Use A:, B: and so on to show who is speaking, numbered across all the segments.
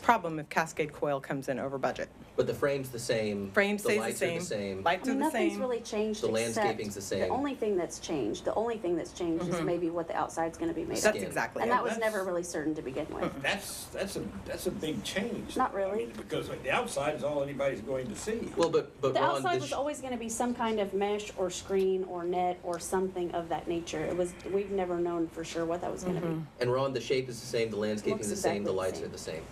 A: problem if Cascade Coil comes in over budget.
B: But the frame's the same.
A: Frame stays the
B: lights
A: same.
B: are the same.
A: Lights
C: I
A: are
C: mean,
A: the
C: nothing's
A: same.
C: really changed
B: The
C: except
B: landscaping's the same.
C: only thing that's changed, the only thing that's changed is maybe what the outside's gonna be made. of.
A: That's
B: skin.
A: exactly
C: And
A: it.
C: that was never really certain to begin with.
D: That's, that's a, that's a big change.
C: Not really.
D: I mean, Because like, the outside is all anybody's going to see.
B: Well, but, but
C: The
B: Ron,
C: outside
B: this
C: was always gonna be some kind of mesh or screen or net or something of that nature. It was, we've never known for sure what that was gonna be.
B: and Ron, the shape is the same, the landscaping's the
C: Looks
B: same, the
C: exactly the
B: lights are
C: same.
B: the same.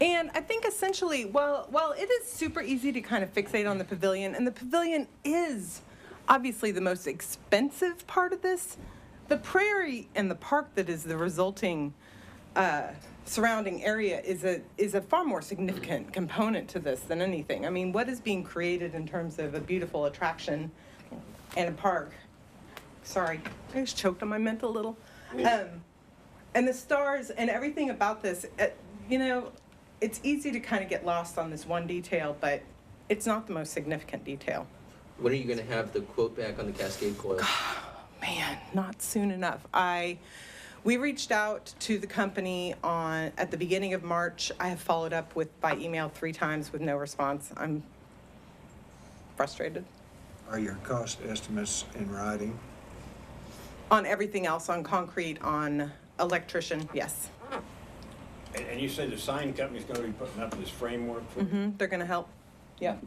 A: And I think essentially, while while it is super easy to kind of fixate on the pavilion, and the pavilion is obviously the most expensive part of this, the prairie and the park that is the resulting uh, surrounding area is a is a far more significant component to this than anything. I mean, what is being created in terms of a beautiful attraction and a park? Sorry, I just choked on my mint a little. Um, and the stars and everything about this uh, you know it's easy to kind of get lost on this one detail but it's not the most significant detail
B: When are you gonna have the quote back on the Cascade Coil?
A: man not soon enough i we reached out to the company on at the beginning of march i have followed up with by email three times with no response i'm frustrated
E: Are your cost estimates in writing?
A: on everything else on concrete on electrician yes
D: And, and you say the sign company's gonna be putting up this framework for.
C: Mm-hmm.
A: Hmm, they're going to help yep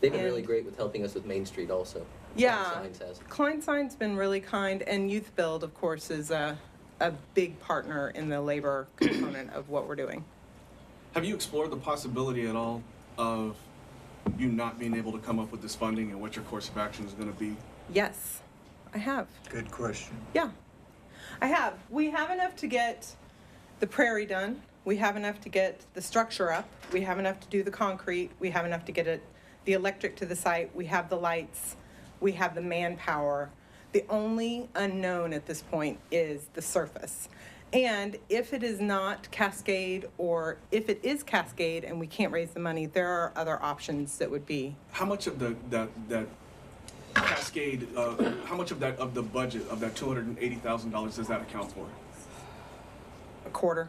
B: They've been really
A: and-
B: great with helping us with Main Street also.
A: Yeah.
B: Signs has.
A: Klein Sign's been really kind, and Youth Build, of course, is a, a big partner in the labor component of what we're doing.
F: Have you explored the possibility at all of you not being able to come up with this funding and what your course of action is going to be?
A: Yes, I have.
E: Good question.
A: Yeah, I have. We have enough to get the prairie done. We have enough to get the structure up. We have enough to do the concrete. We have enough to get it, the electric to the site. We have the lights. We have the manpower. The only unknown at this point is the surface. And if it is not Cascade, or if it is Cascade and we can't raise the money, there are other options that would be
F: How much of the that that cascade? Uh, how much of that of the budget of that two hundred and eighty thousand dollars does that account for?
A: a quarter.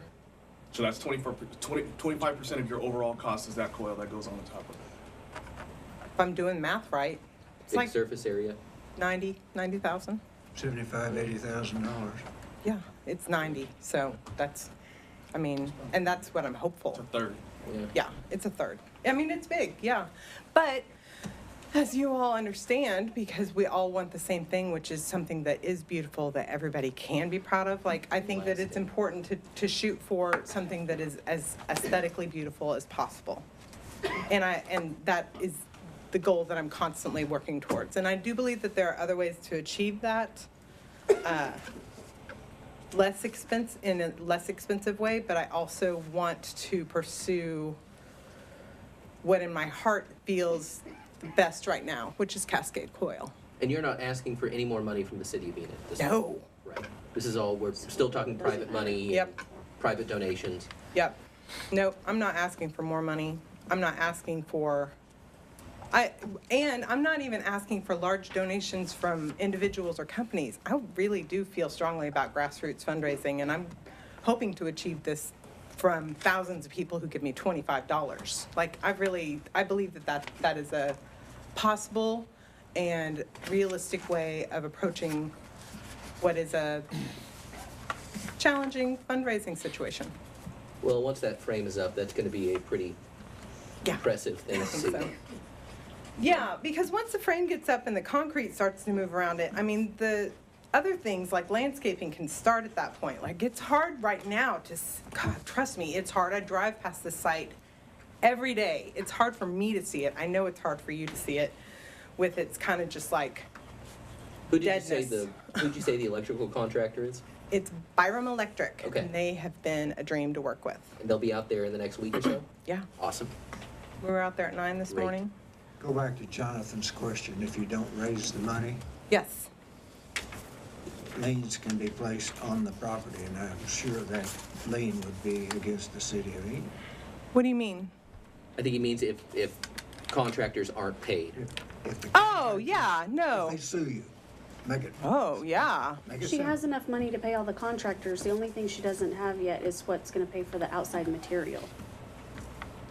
F: So that's 25 percent of your overall cost is that coil that goes on the top of it.
A: If I'm doing math right, it's
B: Big
A: like
B: surface area.
A: 90, 90,000.
E: Seventy-five, eighty thousand dollars.
A: Yeah, it's 90, so that's, I mean, and that's what I'm hopeful.
F: It's a third.
B: Yeah.
A: Yeah, it's a third. I mean, it's big, yeah. But as you all understand, because we all want the same thing, which is something that is beautiful, that everybody can be proud of, like, I think that it's
B: Lasting.
A: important to, to shoot for something that is as aesthetically beautiful as possible. And I, and that is the goal that I'm constantly working towards. And I do believe that there are other ways to achieve that less expense in a less expensive way, but I also want to pursue what in my heart feels the best right now, which is Cascade Coil.
B: And you're not asking for any more money from the city of Enid? this-
A: No.
B: Right. This is all, we're still talking private money.
A: Yep.
B: and Private donations.
A: Yep. No, I'm not asking for more money. I'm not asking for I and I'm not even asking for large donations from individuals or companies. I really do feel strongly about grassroots fundraising and I'm hoping to achieve this from thousands of people who give me $25. Like I really I believe that that, that is a possible and realistic way of approaching what is a challenging fundraising situation.
B: Well, once that frame is up, that's gonna be a pretty
A: Yeah.
B: impressive thing to see.
A: so. Yeah, because once the frame gets up and the concrete starts to move around it, I mean, the other things like landscaping can start at that point. Like, it's hard right now to, s- God, trust me, it's hard. I drive past the site every day. It's hard for me to see it. I know it's hard for you to see it with its kind of just like,
B: Who did you say the,
A: Deadness.
B: who'd you say the electrical contractor is?
A: it's Byram Electric.
B: Okay.
A: And they have been a dream to work with.
B: And they'll be out there in the next week or so?
A: Yeah.
B: Awesome.
A: We were out there at nine this
B: Great.
A: morning.
E: Go back to Jonathan's question. If you don't raise the money,
A: Yes.
E: liens can be placed on the property, and I'm sure that lien would be against the city of Enid.
A: What do you mean?
B: I think he means if, if contractors aren't paid.
E: If- if the-
A: Oh, yeah, no.
E: If they sue you, make it.
A: Oh, yeah.
E: Make it
C: She
E: simple.
C: has enough money to pay all the contractors. The only thing she doesn't have yet is what's gonna pay for the outside material.